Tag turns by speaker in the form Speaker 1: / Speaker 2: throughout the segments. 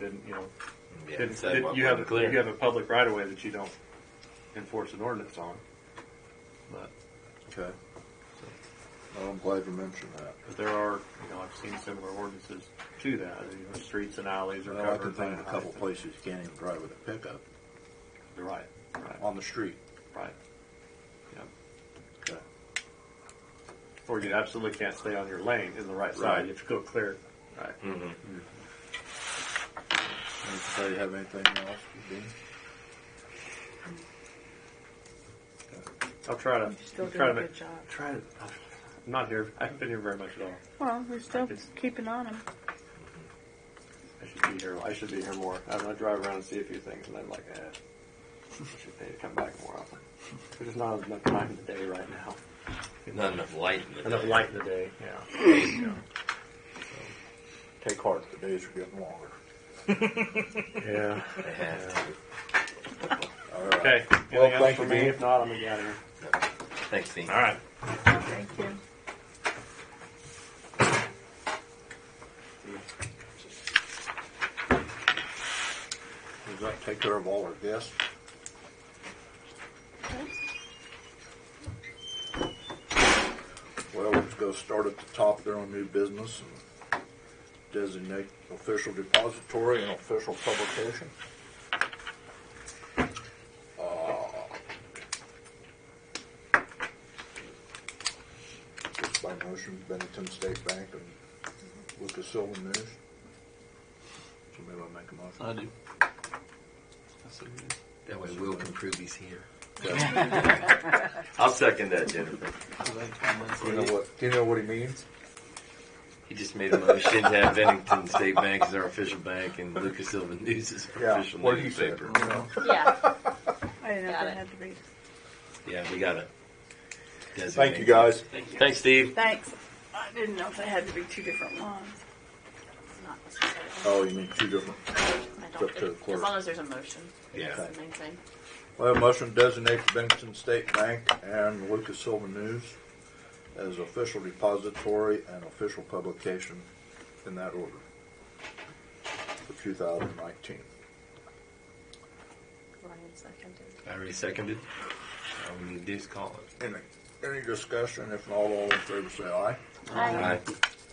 Speaker 1: then, you know,
Speaker 2: Yeah,
Speaker 1: then,
Speaker 2: so
Speaker 1: then
Speaker 2: what
Speaker 1: you
Speaker 2: we're
Speaker 1: have,
Speaker 2: clear.
Speaker 1: you have a public right of way that you don't enforce an ordinance on. But,
Speaker 3: Okay. Well, I'm glad you mentioned that.
Speaker 1: but there are, you know, I've seen similar ordinances to that, you know, streets and alleys are
Speaker 3: Well, I can
Speaker 1: covered. by
Speaker 3: think of
Speaker 1: high-
Speaker 3: a couple places you can't even drive with a pickup
Speaker 1: Right, right,
Speaker 3: on the street.
Speaker 1: right. Yeah.
Speaker 3: Okay.
Speaker 1: Or you absolutely can't stay on your lane in the right
Speaker 3: Right. Hmm.
Speaker 1: side, you have to go clear. Right.
Speaker 2: Mm-hmm.
Speaker 3: Anybody have anything else? Dean?
Speaker 1: I'll try to,
Speaker 4: Still
Speaker 1: try
Speaker 4: doing
Speaker 1: to
Speaker 4: a
Speaker 1: make,
Speaker 4: good job.
Speaker 1: try to, I'm not here, I haven't been here very much at all.
Speaker 4: Well, we're still
Speaker 1: It's-
Speaker 4: keeping on him.
Speaker 1: I should be here. I should be here more. I'm gonna drive around and see a few things, and I'm like, eh, I should pay to come back more often. There's not enough time in the day right now.
Speaker 2: Not enough light in the
Speaker 1: Enough
Speaker 2: day.
Speaker 1: light in the day. Yeah.
Speaker 3: Take heart, the days are getting longer.
Speaker 1: Yeah.
Speaker 2: They have to.
Speaker 3: All right.
Speaker 1: Okay. Anything
Speaker 3: Well,
Speaker 1: else
Speaker 3: thank
Speaker 1: for
Speaker 3: you,
Speaker 1: me?
Speaker 3: Dean.
Speaker 1: If not, I'm gonna get out of here.
Speaker 2: Thanks, Dean.
Speaker 1: right.
Speaker 4: Thank you.
Speaker 3: Does that take care of all our guests? Well, let's go start at the top there on new business and designate official depository and official publication. Uh, Just by motion, Bennington State Bank and Lucas Silva News. Somebody want to make a motion?
Speaker 5: I do.
Speaker 2: That way Will can prove he's here.
Speaker 3: Okay.
Speaker 2: I'll second that, Jennifer.
Speaker 3: You know what? Do you know what he means?
Speaker 2: He just made a motion to have Bennington State Bank as our official bank and Lucas Silva News is our official
Speaker 3: What he said.
Speaker 2: newspaper.
Speaker 3: you know.
Speaker 6: Yeah.
Speaker 4: I didn't know if
Speaker 6: Got
Speaker 4: I
Speaker 6: it.
Speaker 4: had to read.
Speaker 2: Yeah, we got to designate.
Speaker 3: Thank you guys.
Speaker 2: Thanks, Steve.
Speaker 4: Thanks. I didn't know if I had to read two different ones.
Speaker 6: It's not necessary.
Speaker 3: Oh, you mean two different.
Speaker 6: I
Speaker 3: It's up
Speaker 6: don't
Speaker 3: to the
Speaker 6: think,
Speaker 3: clerk.
Speaker 6: as long as there's a motion.
Speaker 2: Yeah.
Speaker 6: That's the main thing.
Speaker 3: Well, motion designates Bennington State Bank and Lucas Silva News as official depository and official publication in that order for 2019.
Speaker 6: Ryan seconded.
Speaker 2: I already seconded. Um, All we need to do is call it.
Speaker 3: Any, any discussion? If not, all in favor say aye.
Speaker 2: Aye.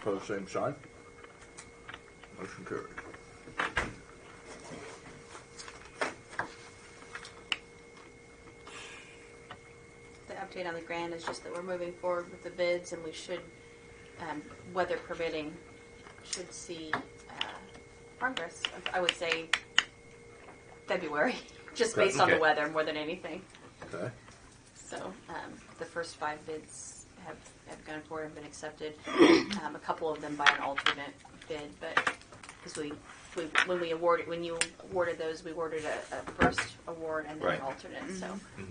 Speaker 3: Pose same sign. Motion carried.
Speaker 6: The update on the grant is just that we're moving forward with the bids and we should, um, weather permitting, should see, uh, progress. I would say February, just
Speaker 3: Okay.
Speaker 6: based on the
Speaker 2: Okay.
Speaker 6: weather more than anything.
Speaker 3: Okay.
Speaker 6: So um, the first five bids have, have gone forward and been accepted. um, a couple of them by an alternate bid, but because we, we when we awarded when you awarded those, we awarded a, a first award and then
Speaker 2: Right. Mm-hmm.
Speaker 6: an alternate.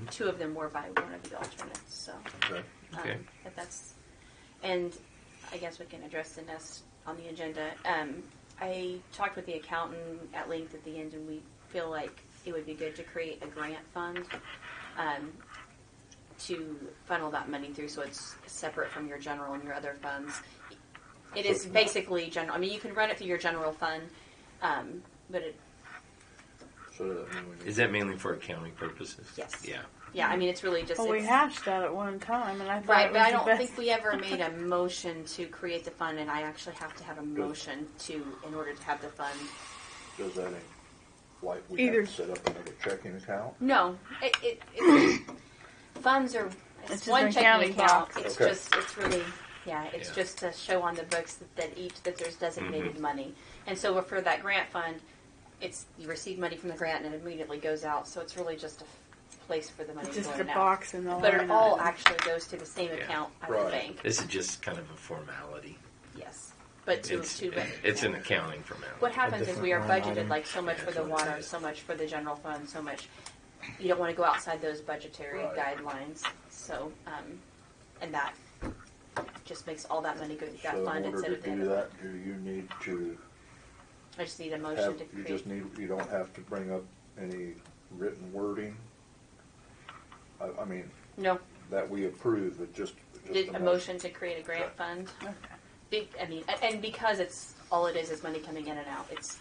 Speaker 6: So two of them were by one of the alternates. So
Speaker 3: Okay.
Speaker 6: um,
Speaker 2: Okay.
Speaker 6: but that's and I guess we can address the nest on the agenda. Um, I talked with the accountant at length at the end, and we feel like it would be good to create a grant fund. Um, to funnel that money through so it's separate from your general and your other funds. It is basically general. I mean, you can run it through your general fund, um, but it,
Speaker 3: So that means we
Speaker 2: Is
Speaker 3: need.
Speaker 2: that mainly for accounting purposes?
Speaker 6: Yes.
Speaker 2: Yeah.
Speaker 6: yeah, I mean, it's really just
Speaker 4: Well, we
Speaker 6: it's-
Speaker 4: hashed that at one time, and I thought
Speaker 6: right,
Speaker 4: it
Speaker 6: but
Speaker 4: was
Speaker 6: I
Speaker 4: the
Speaker 6: don't
Speaker 4: best.
Speaker 6: think we ever made a motion to create the fund, and I actually have to have a motion to in order to have the fund.
Speaker 3: Does that mean like we
Speaker 4: Either-
Speaker 3: have to set up another checking account?
Speaker 6: No, it, it, it funds are it's,
Speaker 4: It's just
Speaker 6: one
Speaker 4: an
Speaker 6: checking
Speaker 4: accounting
Speaker 6: account.
Speaker 4: box.
Speaker 6: It's
Speaker 3: Okay.
Speaker 6: just it's really yeah, it's
Speaker 2: Yeah. Mm-hmm.
Speaker 6: just to show on the books that, that each that there's designated money, and so for that grant fund, it's you receive money from the grant and it immediately goes out. So it's really just a f- place for the money
Speaker 4: It's just
Speaker 6: going
Speaker 4: a
Speaker 6: out.
Speaker 4: box and all.
Speaker 6: But it all actually goes to the same
Speaker 2: Yeah.
Speaker 6: account at the
Speaker 3: Right.
Speaker 6: bank.
Speaker 2: This is just kind of a formality.
Speaker 6: Yes, but to
Speaker 2: It's,
Speaker 6: to
Speaker 2: it's an accounting formality.
Speaker 6: what happens is we are
Speaker 5: different line
Speaker 6: budgeted
Speaker 5: item.
Speaker 6: like so much
Speaker 2: Yeah,
Speaker 6: for the
Speaker 2: that's what it
Speaker 6: water,
Speaker 2: is.
Speaker 6: so much for the general fund, so much. You don't want to go outside those budgetary
Speaker 3: Right.
Speaker 6: guidelines. So, um, and that just makes all that money go to that
Speaker 3: So in
Speaker 6: fund
Speaker 3: order
Speaker 6: instead
Speaker 3: to
Speaker 6: of the
Speaker 3: do
Speaker 6: other.
Speaker 3: that, do you need to
Speaker 6: I just need a motion
Speaker 3: have,
Speaker 6: to
Speaker 3: you
Speaker 6: create.
Speaker 3: just need, you don't have to bring up any written wording? I, I mean,
Speaker 6: no,
Speaker 3: that we approve, it just. just
Speaker 6: did
Speaker 3: the
Speaker 6: a motion to create a grant
Speaker 3: Okay.
Speaker 6: fund. Be, I mean, a- and because it's all it is is money coming in and out. It's